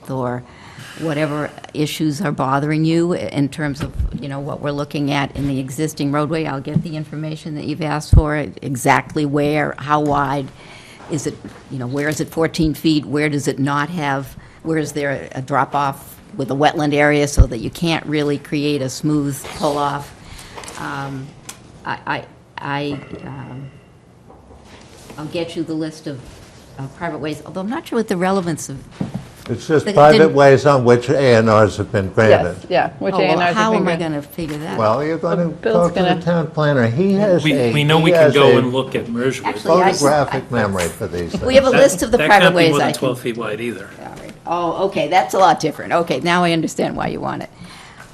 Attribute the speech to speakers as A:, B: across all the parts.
A: health or whatever issues are bothering you in terms of, you know, what we're looking at in the existing roadway. I'll get the information that you've asked for, exactly where, how wide, is it, you know, where is it 14 feet? Where does it not have, where is there a drop-off with a wetland area so that you can't really create a smooth pull-off? Um, I, I, I, um, I'll get you the list of of private ways, although I'm not sure what the relevance of
B: It's just
A: But it
B: private
A: didn't-
B: ways on which A and Rs have been granted.
C: Yes, yeah, which
A: Oh,
C: A and
A: well,
C: R's
A: how
C: have
A: am I
C: been
A: going to figure that? out?
B: Well, you're going to
C: Bill's
B: talk to the
C: gonna-
B: town planner. He has
D: We,
B: a.
D: we know
B: he
D: we can
B: has
D: go
B: a
D: and look at merge with.
A: Actually, I-
B: Photographic memory for these
A: We have a
B: things.
A: list of the
D: That can't
A: private
D: be
A: ways
D: more
A: I
D: than
A: can.
D: 12 feet wide either.
A: All right. Oh, okay, that's a lot different. Okay, now I understand why you want it.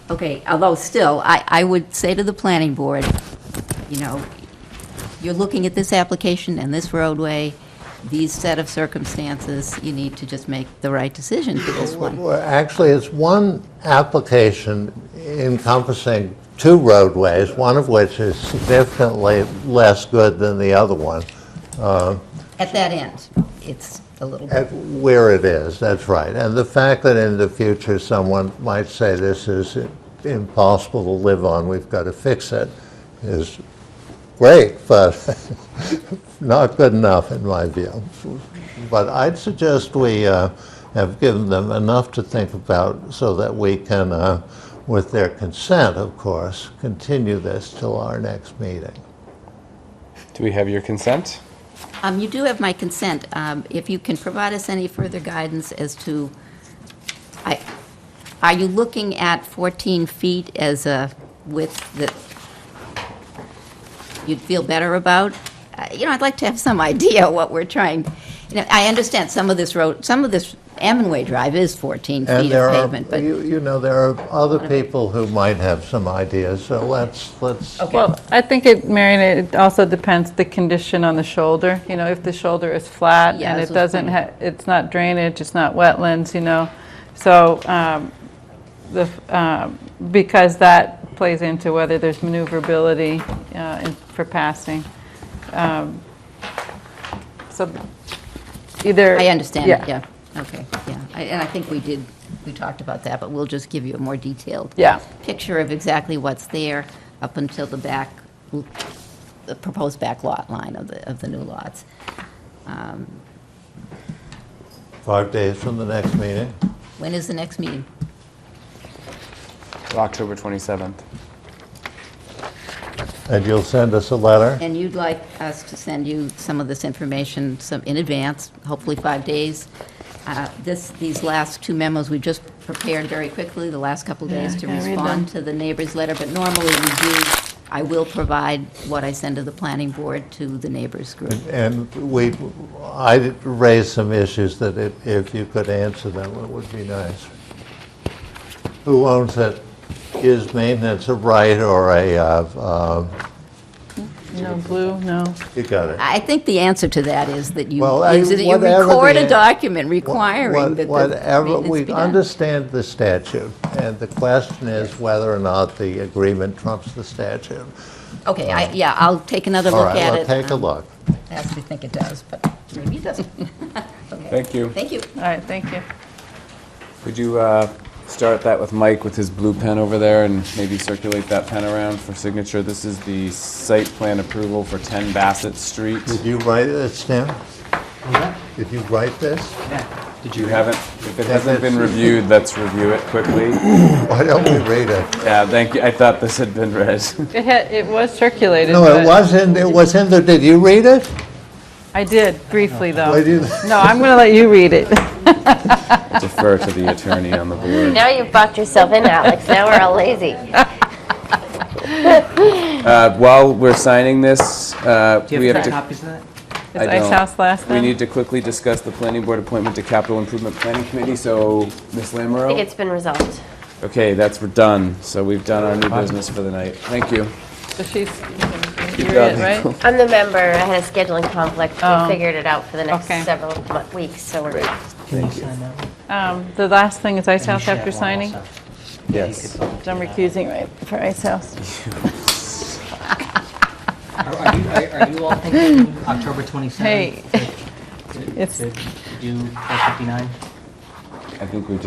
A: Okay, although still, I, I would say to the planning board, you know, you're looking at this application and this roadway, these set of circumstances, you need to just make the right decision for this one.
B: Well, Actually, it's one application encompassing two roadways, one of which is significantly less good than the other one,
A: At that end, it's a little bit,
B: at where it is, that's right. And the fact that in the future, someone might say this is impossible to live on, we've got to fix it, is great, but not good enough in my view. But I'd suggest we uh, have given them enough to think about so that we can, uh, with their consent, of course, continue this till our next meeting.
E: Do we have your consent?
A: um, you do have my consent. Um, if you can provide us any further guidance as to, I, are you looking at 14 feet as a width that you'd feel better about? Uh, You know, I'd like to have some idea what we're trying, you know, I understand some of this road, some of this Ammonway Drive is 14
B: And
A: feet
B: there
A: of
B: are,
A: pavement, but,
B: you you know, there are other people who might have some ideas, so let's, let's
A: okay.
C: Well, I think it, Marion, it also depends the condition on the shoulder. You know, if the shoulder is flat
A: Yeah,
C: and
A: this was
C: it doesn't,
A: funny.
C: ha- it's not drainage, it's not wetlands, you know. So, um, the, f- um, because that plays into whether there's maneuverability uh, in- for passing. Um, So either.
A: I understand, it, yeah, okay, yeah. I- And I think we did, we talked about that, but we'll just give you a more detailed
C: Yeah.
A: picture of exactly what's there up until the back, the proposed back lot line of the, of the new lots.
B: Five days from the next meeting.
A: When is the next meeting?
E: October 27th.
B: And you'll send us a letter?
A: And you'd like us to send you some of this information some, in advance, hopefully five days. Uh, This, these last two memos, we just prepared very quickly, the last couple of days, to
C: Yeah, yeah, read
A: respond
C: them.
A: to the neighbor's letter, but normally we do, I will provide what I send to the planning board to the neighbors group.
B: And we, I raised some issues that if- if you could answer them, it would be nice. Who owns it? Is maintenance a right or a, uh, um,
C: No blue, no.
B: you got it?
A: I think the answer to that is that you,
B: Well, I-
A: is that you
B: whatever
A: record
B: the-
A: a document
B: Wha-
A: requiring
B: what-
A: that the
B: Whatever,
A: maintenance
B: we
A: be done.
B: understand the statute, and the question is whether or not the agreement trumps the statute.
A: Okay, I, yeah, I'll take another
B: All
A: look at
B: right,
A: it.
B: well, take a
A: Um,
B: look.
A: I actually think it does, but maybe it doesn't. Okay.
E: Thank you.
A: Thank you.
C: All right, thank you.
E: Could you uh, start that with Mike with his blue pen over there and maybe circulate that pen around for signature? This is the site plan approval for 10 Bassett Street.
B: Did you write this down? Did you write this?
E: Did you haven't? If it hasn't been reviewed, let's review it quickly.
B: Why don't we read it?
E: Yeah, thank you. I thought this had been read.
C: It had, it was circulated.
B: No, it
C: but-
B: wasn't, it was in the, did you read it?
C: I did, briefly, though.
B: Why do you-
C: No, I'm going to let you read it.
E: Defer to the attorney on the board.
F: Now you've boxed yourself in, Alex. Now we're all lazy.
E: Uh, While we're signing this, uh,
G: Do
E: we
G: you
E: have
G: have
E: to,
G: copies of that?
C: Is
E: I
C: Ice
E: don't.
C: House last
E: we
C: then?
E: need to quickly discuss the planning board appointment to capital improvement planning committee, so Ms. Lammerow?
F: I think it's been resolved.
E: Okay, that's, we're done. So we've done our new business for the night. Thank you.
C: So she's, you
E: going.
C: read it, right?
F: I'm the member. I had a scheduling conflict.
C: Oh.
F: We figured it out for the next
C: Okay.
F: several mo- weeks, so we're
C: Um, The last thing is Ice House
G: Share
C: after
G: one
C: signing.
G: also.
E: Yes.
C: I'm recusing right for Ice House.
G: Are are you, are are you all thinking October 27th?
C: Hey,
G: to-
C: it's-
G: To do 459?
E: I think we